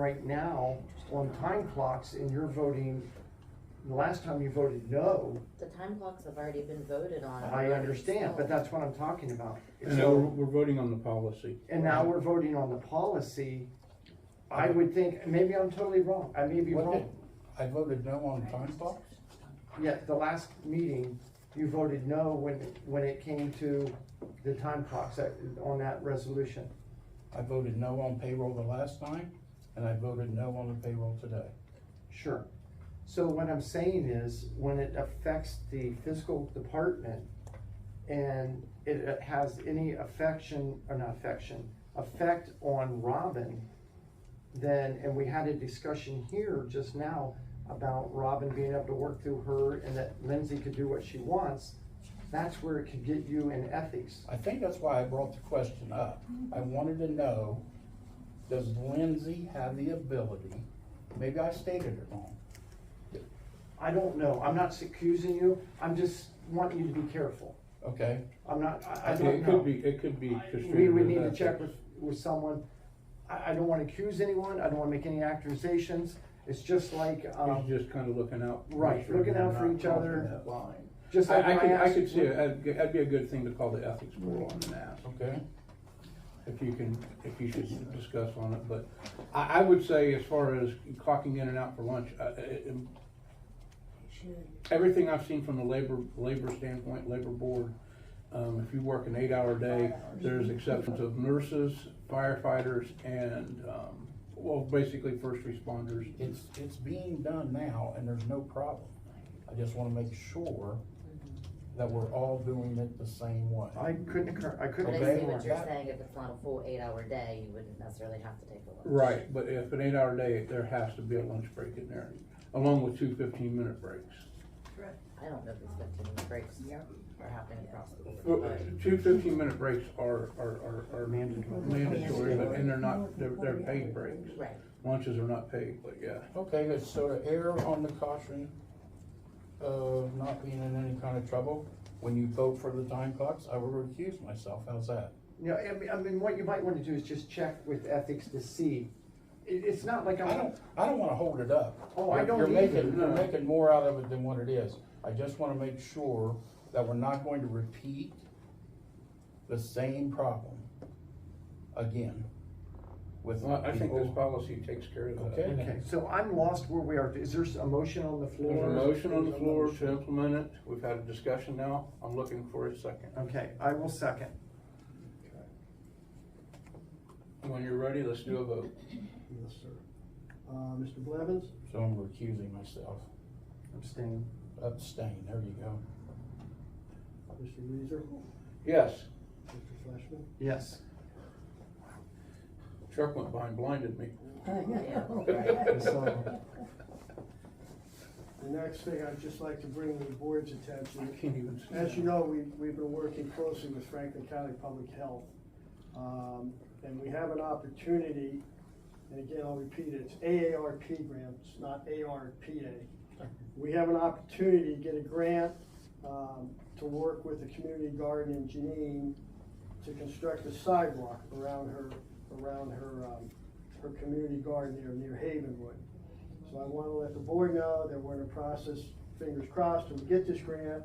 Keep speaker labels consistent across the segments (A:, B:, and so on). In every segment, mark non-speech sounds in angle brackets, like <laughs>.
A: right now on time clocks and you're voting, the last time you voted no,
B: The time clocks have already been voted on.
A: I understand, but
B: so-
A: that's what I'm talking about.
C: And now we're,
A: So,
C: we're voting on the policy.
A: and now we're voting on the policy. I would think, maybe I'm totally wrong, I may be
D: What
A: wrong.
D: did- I voted no on time clocks?
A: Yeah, the last meeting, you voted no when, when it came to the time clocks that- on that resolution.
D: I voted no on payroll the last time, and I voted no on the payroll today.
A: Sure. So what I'm saying is, when it affects the fiscal department and it has any affection, or not affection, effect on Robin, then, and we had a discussion here just now about Robin being able to work through her and that Lindsay could do what she wants, that's where it could get you in ethics.
D: I think that's why I brought the question up. I wanted to know, does Lindsay have the ability, maybe I stated it wrong,
A: I don't know, I'm not accusing you, I'm just wanting you to be careful.
D: okay?
A: I'm not, I, I
C: Okay,
A: don't
C: It
A: know.
C: could be, it could be
A: We
C: construed
A: would need to
C: as
A: check
C: that.
A: with, with someone. I, I don't wanna accuse anyone, I don't wanna make any accusations. It's just like,
C: He's
A: um,
C: just kind of looking out. to make
A: Right,
C: sure
A: looking
C: we're
A: out for
C: not
A: each other.
C: crossing that Line.
A: just like
C: I, I
A: when I
C: could, I
A: asked.
C: could see, it. that'd, g- that'd be a good thing to call the ethics board on and ask,
D: Okay?
C: if you can, if you should discuss on it, but I, I would say as far as clocking in and out for lunch, uh, it- it- everything I've seen from the labor, labor standpoint, labor board, um, if you work an eight-hour day, there's exceptions of nurses, firefighters, and, um, well, basically first responders.
D: It's, it's being done now, and there's no problem. I just wanna make sure that we're all doing it the same way.
A: I couldn't, cur- I
B: But
A: couldn't.
B: I
D: Okay.
B: see
A: agree
B: what
A: more.
B: you're
D: That-
B: saying, if it's not a full eight-hour day, you wouldn't necessarily have to take a lunch.
C: Right, but if an eight-hour day, there has to be a lunch break in there, along with two fifteen-minute breaks.
B: I don't know if it's fifteen minute breaks are happening across the board.
C: Well, Two fifteen-minute breaks are, are, are, are
A: Mandatory.
C: mandatory, but, and they're not, they're, they're paid breaks.
B: Right,
C: Lunches are not paid, but yeah.
D: Okay, good, so to err on the caution of not being in any kind of trouble, when you vote for the time clocks, I will recuse myself, how's that?
A: You know, I mean, I mean, what you might wanna do is just check with ethics to see. It, it's not like
D: I
A: I'm,
D: don't, I don't wanna hold it up.
A: Oh, I don't
D: You're making,
A: either,
D: you're
C: no.
D: making more out of it than what it is. I just wanna make sure that we're not going to repeat the same problem again with
C: Well, I think this
D: people.
C: policy takes care of that.
D: Okay.
A: okay, so I'm lost where we are. Is there a motion on the floor?
C: There's a motion on the floor to implement it, we've had a discussion now, I'm looking for a second.
A: Okay, I will second.
C: When you're ready, let's do a vote.
E: Yes, sir. Uh, Mr. Blevins?
D: So I'm recusing myself,
A: Abstain.
D: abstain, there you go.
E: Mr. Reeser?
C: Yes,
E: Mr. Fleshman?
A: Yes.
C: Chuck went behind, blinded me.
B: Oh,
C: <laughs>
A: So-
E: The next thing I'd just like to bring to the board's attention.
C: I can't even see
E: As you
C: that.
E: know, we, we've been working closely with Franklin County Public Health. Um, and we have an opportunity, and again, I'll repeat it, it's AARP grant, it's not ARPA. We have an opportunity to get a grant, um, to work with the community garden in Janine to construct a sidewalk around her, around her, um, her community garden there near Havenwood. So I wanna let the board know that we're in the process, fingers crossed, to get this grant.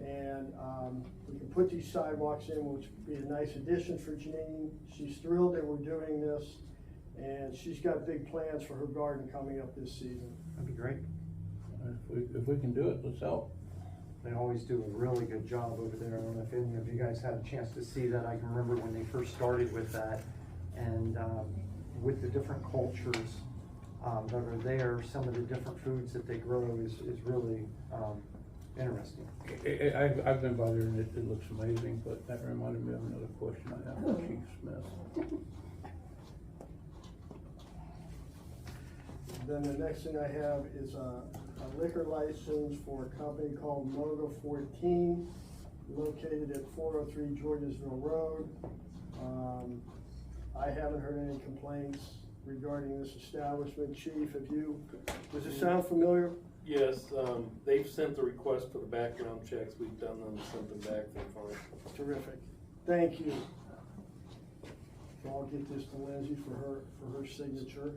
E: And, um, we can put these sidewalks in, which would be a nice addition for Janine. She's thrilled that we're doing this, and she's got big plans for her garden coming up this season.
A: That'd be great.
C: If we, if we can do it, let's help.
A: They always do a really good job over there. I don't know if any of you guys had a chance to see that. I can remember when they first started with that. And um, with the different cultures um, that are there, some of the different foods that they grow is, is really um, interesting.
C: I- I, I've, I've been by there and it, it looks amazing, but that reminded me of another question I have for Chief Smith.
E: Then the next thing I have is a a liquor license for a company called Mogo Fourteen, located at four oh three Georgesville Road. Um, I haven't heard any complaints regarding this establishment. Chief, have you, does it sound familiar?
F: Yes, um, they've sent the request for the background checks, we've done them, sent them back, they're fine.
E: Terrific. Thank you. So I'll get this to Lindsay for her, for her signature.